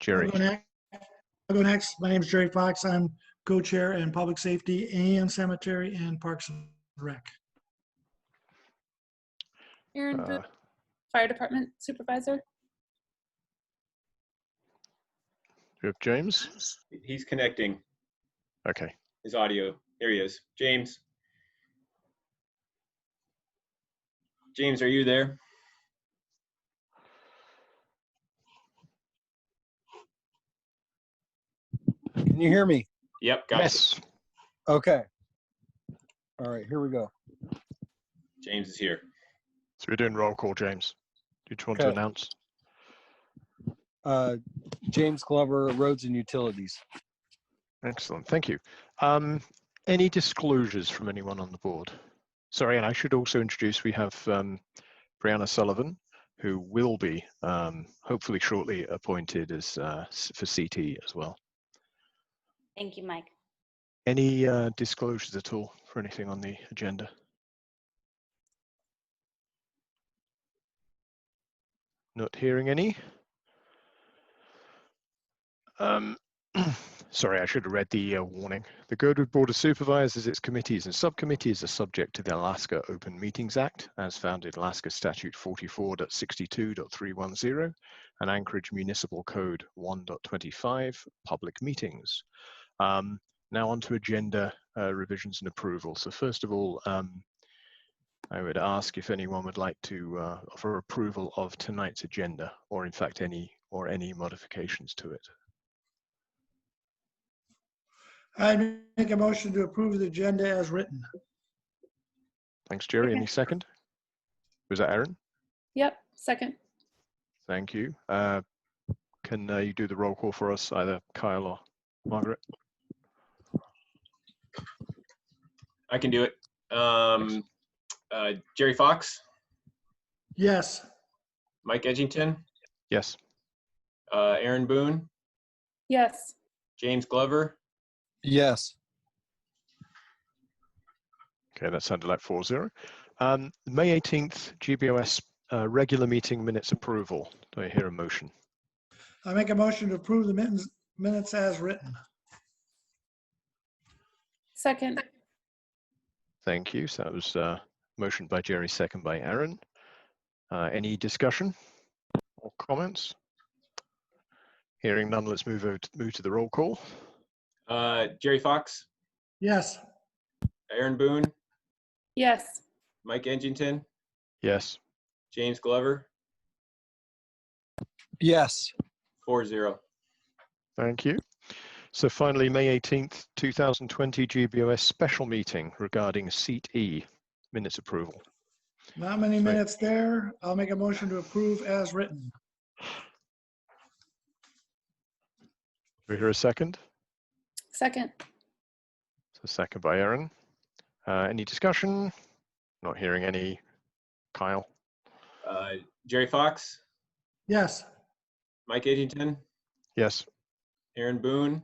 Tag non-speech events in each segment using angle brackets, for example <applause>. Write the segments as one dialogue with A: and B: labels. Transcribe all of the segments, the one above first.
A: Jerry.
B: I'll go next. I'll go next. My name is Jerry Fox. I'm co-chair in Public Safety and Cemetery and Parks and Rec.
C: Aaron
A: Uh,
C: Booth, Fire Department Supervisor.
A: Rip James.
D: He's connecting
A: Okay.
D: his audio. There he is. James. James, are you there?
E: Can you hear me?
D: Yep, got
A: Yes.
E: Okay. All right, here we go.
D: you. James is here.
A: So we're doing roll call, James. Did you want to
E: Okay.
A: announce?
E: Uh, James Glover, Roads and Utilities.
A: Excellent. Thank you. Um, any disclosures from anyone on the board? Sorry, and I should also introduce we have um, Brianna Sullivan, who will be um, hopefully shortly appointed as uh, s- for CT as well.
F: Thank you, Mike.
A: Any uh, disclosures at all for anything on the agenda? Not hearing any. Um, <clears throat> sorry, I should have read the uh, warning. The Girdwood Board of Supervisors, its committees and subcommittees are subject to the Alaska Open Meetings Act, as found in Alaska Statute 44.62.310 and Anchorage Municipal Code 1.25, public meetings. Um, now on to agenda uh, revisions and approval. So first of all, um, I would ask if anyone would like to uh, offer approval of tonight's agenda, or in fact any or any modifications to it.
B: I make a motion to approve the agenda as written.
A: Thanks, Jerry.
F: Okay.
A: Any second? Was that Aaron?
C: Yep, second.
A: Thank you. Uh, can uh, you do the roll call for us, either Kyle or Margaret?
D: I can do it. Um, uh, Jerry Fox,
B: Yes,
D: Mike Edgington,
A: Yes.
D: uh, Aaron Boone,
C: Yes,
D: James Glover.
E: Yes.
A: Okay, that sounded like 4 0. Um, May 18th, GBOS uh, regular meeting minutes approval. Do I hear a motion?
B: I make a motion to approve the minutes, minutes as written.
C: second.
A: Thank you. So that was uh, motion by Jerry, second by Aaron. Uh, any discussion or comments? Hearing none, let's move over to, move to the roll call.
D: Uh, Jerry Fox,
B: Yes,
D: Aaron Boone,
C: Yes,
D: Mike Edgington,
A: Yes.
D: James Glover,
E: Yes.
D: 4 0.
A: Thank you. So finally, May 18th, 2020 GBOS special meeting regarding seat E minutes approval.
B: not many
A: Right.
B: minutes there. I'll make a motion to approve as written.
A: Do we hear a second?
C: second.
A: So second by Aaron. Uh, any discussion? Not hearing any. Kyle?
D: Uh, Jerry Fox,
B: Yes,
D: Mike Edgington,
A: Yes.
D: Aaron Boone,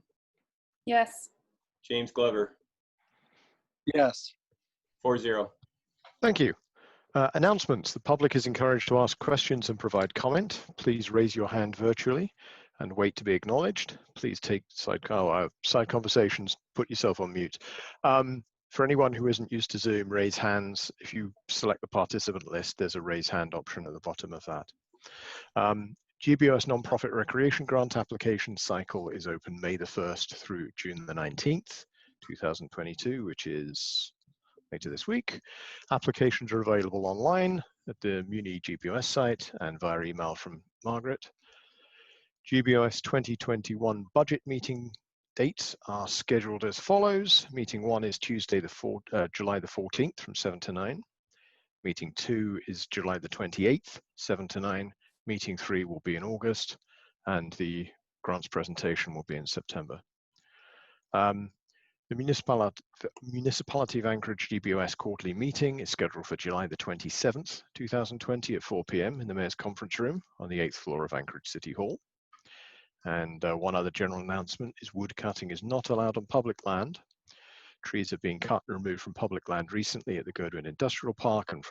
C: Yes,
D: James Glover,
E: Yes.
D: 4 0.
A: Thank you. Uh, announcements. The public is encouraged to ask questions and provide comment. Please raise your hand virtually and wait to be acknowledged. Please take side, oh, uh, side conversations, put yourself on mute. Um, for anyone who isn't used to Zoom, raise hands. If you select the participant list, there's a raise hand option at the bottom of that. Um, GBOS nonprofit recreation grant application cycle is open May the 1st through June the 19th, 2022, which is later this week. Applications are available online at the Muni GBOS site and via email from Margaret. GBOS 2021 budget meeting dates are scheduled as follows. Meeting one is Tuesday, the four, uh, July the 14th from 7 to 9. Meeting two is July the 28th, 7 to 9. Meeting three will be in August and the grants presentation will be in September. Um, the municipality, municipality of Anchorage GBOS quarterly meeting is scheduled for July the 27th, 2020 at 4 p.m. in the Mayor's Conference Room on the eighth floor of Anchorage City Hall. And uh, one other general announcement is wood cutting is not allowed on public land. Trees have been cut and removed from public land recently at the Goodwin Industrial Park and from